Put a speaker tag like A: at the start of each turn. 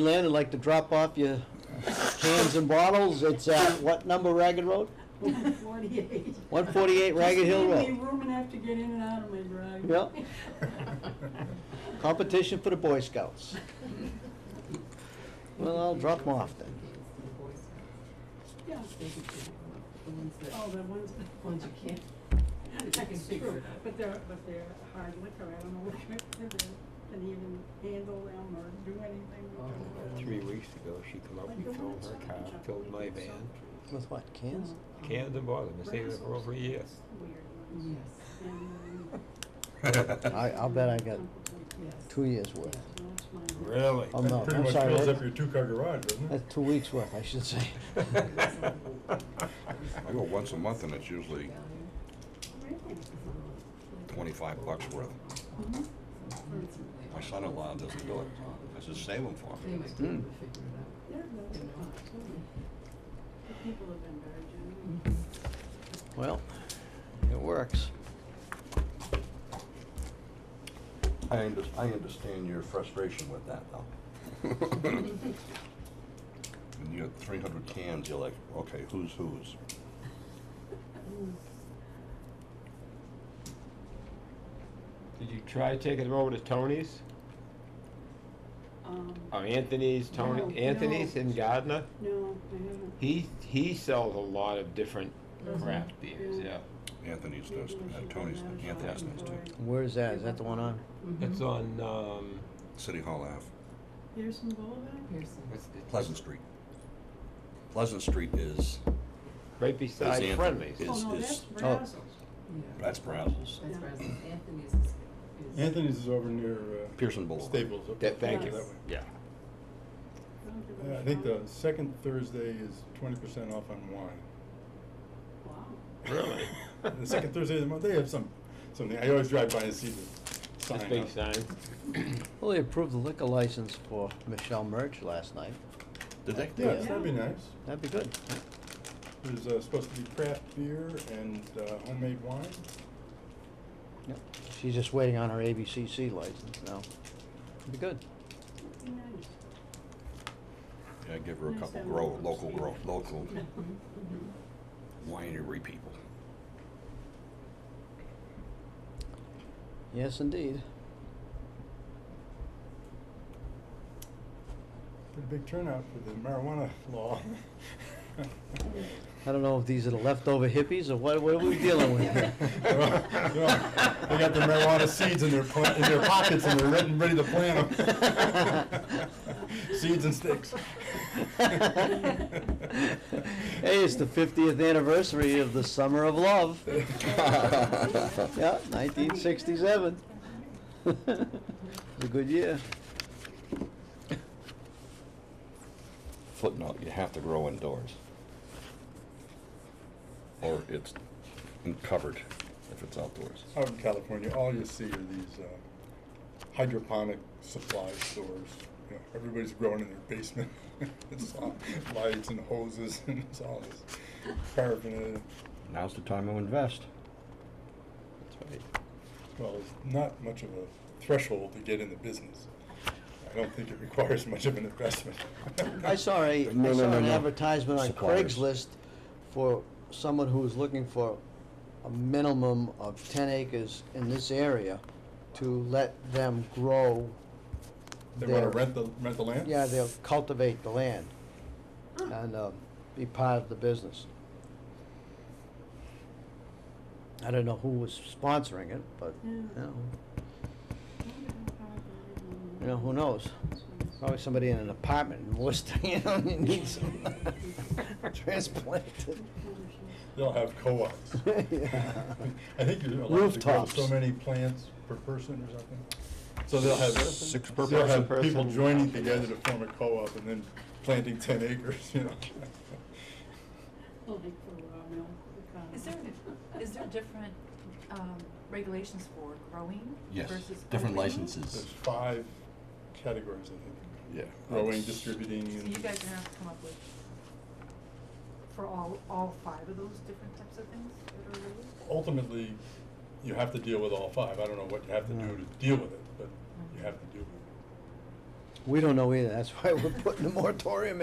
A: Land, I'd like to drop off your cans and bottles. It's at what number Ragged Road?
B: Forty-eight.
A: 148 Ragged Hill
B: Just
A: Road.
B: leave me room enough to get in and out of my driveway.
A: Yep. Competition for the Boy Scouts. Well, I'll drop them off then.
B: Yeah. Oh, the ones, the ones you can't. That's true, but they're, but they're hard liquor, I don't know what they're, can even handle them or do anything. with them.
C: Three weeks ago, she come up, we Oh, filled her car, filled my van,
A: With what, cans?
C: cans and bottles, and stayed there for over a year.
B: Weird. uh, Yes.
A: I, I'll bet I got two years worth.
D: Really?
A: Oh, no,
D: That pretty
A: I'm
D: much
A: sorry,
D: fills
A: what-
D: up your two-car garage, doesn't it?
A: That's Uh, two weeks worth, I should say.
E: I go once a month and it's usually twenty-five bucks worth.
A: Mm-hmm.
E: My son-in-law doesn't do it. I said, save them for me.
F: Mm.
A: Hmm.
B: People have been very generous.
A: Well, it works.
E: I under, I understand your frustration with that though. When you got three hundred cans, you're like, okay, who's whose?
A: Mm-hmm.
C: Did you try taking them over to Tony's?
B: Um,
E: Uh,
C: Oh, Anthony's,
B: No,
C: Tony,
B: no.
C: Anthony's in Gardner?
B: no, I haven't.
C: He, he sells a lot of different
B: Does he?
C: craft beers,
B: Yeah.
C: yeah.
E: Anthony's does,
B: Maybe I
E: uh,
B: should
E: Tony's,
B: go down and
E: Anthony's
B: shop
E: does too.
B: before
A: Where is that? Is that the one on?
C: It's on, um,
E: City Hall Ave,
B: I- Pearson Boulevard?
C: what's it-
E: Pleasant Street. Pleasant Street is,
C: right beside
E: Anthony-
C: Friendly's.
E: Is-
B: Oh, no,
E: is-
B: that's
E: oh.
B: Brazos.
E: that's Brazos,
F: That's where I was, Anthony's is.
D: Anthony's is over near uh,
E: Pearson Boulevard.
D: Staples. up
C: That- thank
B: you.
D: that way.
C: Yeah.
B: Don't give
D: Uh,
B: a
D: I think the
B: shot.
D: second Thursday is twenty percent off on wine.
B: Wow.
C: Really?
D: The second Thursday of the month, they have some, something, I always drive by and see the
C: This
D: sign
C: big
D: up.
C: sign.
A: Well, they approved the liquor license for Michelle Murch last night.
E: Did they?
D: Yeah, so that'd be nice.
A: That'd be good.
D: There's uh, supposed to be craft beer and uh, homemade wine.
A: Yep. She's just waiting on her ABCC license now. It'd be good.
B: That'd be nice.
E: Yeah, give her a
B: Nice
E: couple
B: that
E: grow,
B: one.
E: local grow, local
F: Mm-hmm.
E: winery people.
A: Yes, indeed.
D: Pretty big turnout for the marijuana law.
A: I don't know if these are the leftover hippies or what, what are we dealing with here?
D: They're all- they're all- They got their marijuana seeds in their, pla- in their pockets and they're ready, ready to plant them. Seeds and sticks.
A: Hey, it's the fiftieth anniversary of the Summer of Love. Yeah, nineteen sixty-seven. It's a good year.
E: Footnote, you have to grow indoors. Or it's in- covered if it's outdoors.
D: Out in California, all you see are these uh, hydroponic supply stores. You know, everybody's growing in their basement. It's all lights and hoses and it's all this paraphernalia.
E: Now's the time to invest.
C: That's right.
D: Well, there's not much of a threshold to get in the business. I don't think it requires much of an investment.
A: I saw a,
E: No,
A: I
E: no,
A: saw
E: no,
A: an
E: no.
A: advertisement on
E: Suppliers.
A: Craigslist for someone who was looking for a minimum of ten acres in this area to let them grow.
D: They wanna
A: their-
D: rent the, rent the land?
A: Yeah, they'll cultivate the land and, uh, be part of the business. I don't know who was sponsoring it, but,
B: Yeah.
A: you know,
B: Don't give a shot.
A: you know, who knows? Probably somebody in an apartment in Worcester, you know, and needs some transplanted.
D: They'll have co-ops.
A: Yeah.
D: I think you're allowed to grow so
A: Rooftops.
D: many plants per person or something. So they'll have,
E: Six per
D: they'll have
C: person.
D: people joining together to form a co-op and then planting ten acres, you know.
B: Like for raw milk, the cow.
F: Is there, is there different, um, regulations for growing
E: Yes,
F: versus?
E: different
F: opening?
E: licenses.
D: There's five categories, I think.
E: Yeah.
D: Growing,
E: That's-
D: distributing,
F: So
D: and.
F: you guys are gonna have to come up with, for all, all five of those different types of things that are related?
D: ultimately, you have to deal with all five. I don't know what you have to do
A: Mm.
D: to deal with it, but you have to deal with
A: We don't know either, that's why we're putting the moratorium